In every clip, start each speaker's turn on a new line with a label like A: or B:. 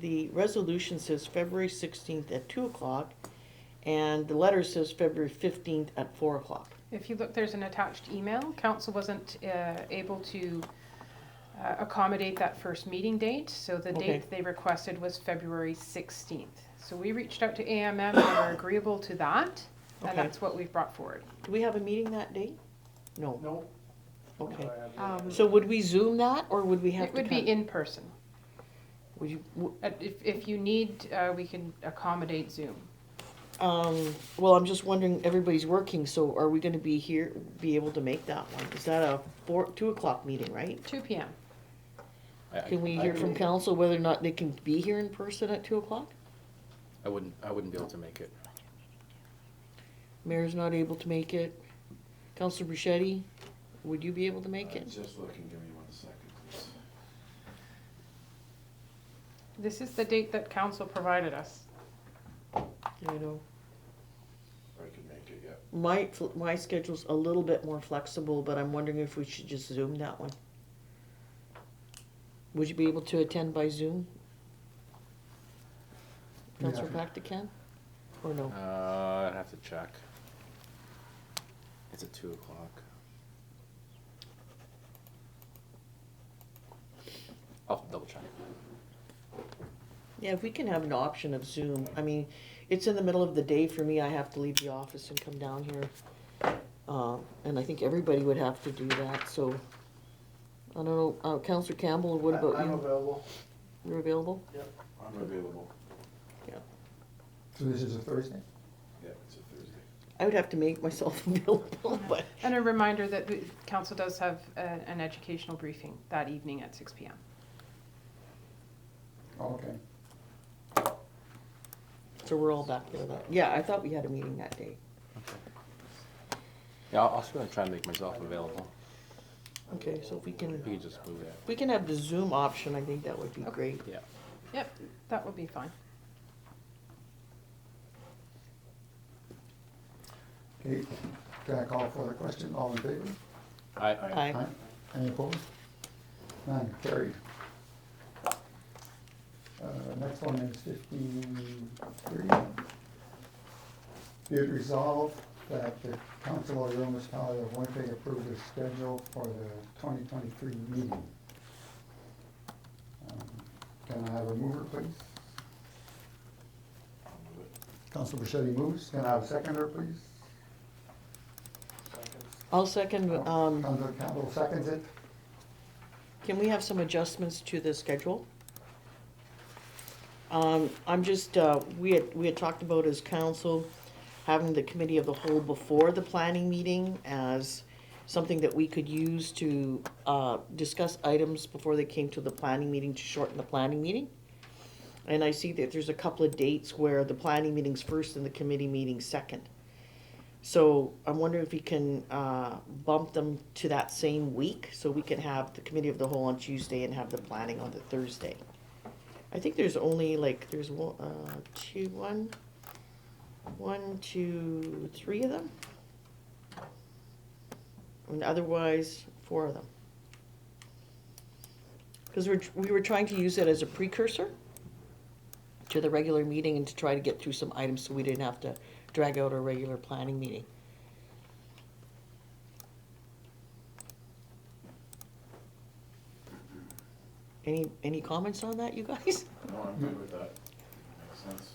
A: the resolution says February sixteenth at two o'clock, and the letter says February fifteenth at four o'clock.
B: If you look, there's an attached email. Council wasn't uh, able to uh, accommodate that first meeting date, so the
A: Okay.
B: date they requested was February 16th. So we reached out to AMM, they were agreeable to that,
A: Okay.
B: and that's what we've brought forward.
A: Do we have a meeting that day? No,
C: No.
A: okay.
B: Um,
A: So would we Zoom that, or would we have
B: It
A: to
B: would be
A: come?
B: in person.
A: Would you, w-
B: Uh, If, if you need, uh, we can accommodate Zoom.
A: um, well, I'm just wondering, everybody's working, so are we gonna be here, be able to make that one? Is that a four, two o'clock meeting, right?
B: 2 PM.
D: I- I-
A: Can we hear
D: I
A: from
D: wouldn't-
A: council whether or not they can be here in person at two o'clock?
D: I wouldn't, I wouldn't be able to make it.
A: Mayor's not able to make it. Councilor Bruschetti, would you be able to make
D: Uh,
E: I'm
A: it?
E: Uh, Just looking, give me one second, please.
B: This is the date that council provided us.
A: I know.
E: I can make it, yeah.
A: My, fl- my schedule's a little bit more flexible, but I'm wondering if we should just Zoom that one. Would you be able to attend by Zoom? Councilor Pachter can, or no?
D: Uh, I'd have to check. It's at two o'clock. I'll double check.
A: Yeah, if we can have an option of Zoom, I mean, it's in the middle of the day for me, I have to leave the office and come down here. Uh, and I think everybody would have to do that, so, I don't know, uh, Counselor Campbell, what about
C: I'm
A: you?
C: available.
A: You're available?
E: I'm available.
F: So this is a Thursday?
E: Yeah, it's a Thursday.
A: I would have to make myself available, but,
B: And a reminder that the council does have uh, an educational briefing that evening at 6 PM.
F: Okay.
A: so we're all back there that, yeah, I thought we had a meeting that day.
D: Yeah, I'll, I'll just gonna try and make myself available.
A: Okay, so if we
D: We
A: can,
D: can just move it.
A: if we can have the Zoom option, I think that would be
B: Okay.
A: great.
D: Yeah.
B: Yep, that would be fine.
F: Okay, can I call for the question? All in favor?
D: I,
A: Aye.
F: Any opposed? None, carried. Uh, next one is fifty-three. Be it resolved that the council of the municipality of Winnipeg approve the schedule for the twenty twenty-three meeting. Um, Can I have a mover, please?
E: I'll move it.
F: Council Bichetti moves. Can I have a seconder, please?
A: I'll second,
F: Oh,
A: um,
F: Council Campbell seconds it.
A: Can we have some adjustments to the schedule? Um, I'm just, uh, we had, we had talked about as council having the committee of the whole before the planning meeting as something that we could use to, uh, discuss items before they came to the planning meeting to shorten the planning meeting. And I see that there's a couple of dates where the planning meeting's first and the committee meeting's second. So I'm wondering if we can uh, bump them to that same week, so we can have the committee of the whole on Tuesday and have the planning on the Thursday. I think there's only like, there's one, uh, two, one, one, two, three of them? And otherwise, four of them. Because we're, we were trying to use it as a precursor to the regular meeting and to try to get through some items so we didn't have to drag out our regular planning meeting. Any, any comments on that, you guys?
E: No, I'm good with that. Makes sense.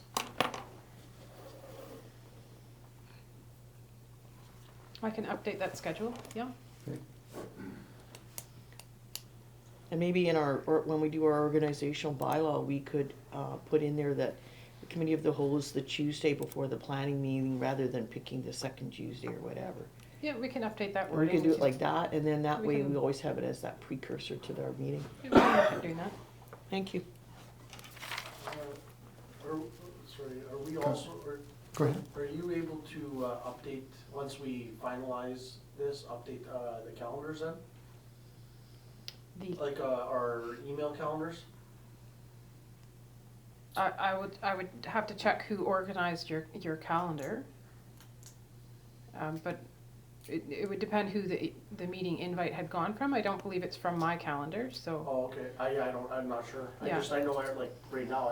B: I can update that schedule, yeah?
A: And maybe in our, or when we do our organizational bylaw, we could, uh, put in there that the committee of the whole is the Tuesday before the planning meeting rather than picking the second Tuesday or whatever.
B: Yeah, we can update that
A: Or we
B: wording.
A: could do it like that, and then that
B: We
A: way
B: can-
A: we always have it as that precursor to our meeting.
B: We can look at doing that.
A: Thank you.
C: Are, sorry, are we also, are,
F: Go ahead.
C: are you able to uh, update, once we finalize this, update uh, the calendars then?
B: The,
C: Like uh, our email calendars?
B: I, I would, I would have to check who organized your, your calendar. Um, but it, it would depend who the, the meeting invite had gone from. I don't believe it's from my calendar, so.
C: Oh, okay, I, I don't, I'm not sure. I
B: Yeah.
C: just, I know, I like, right now,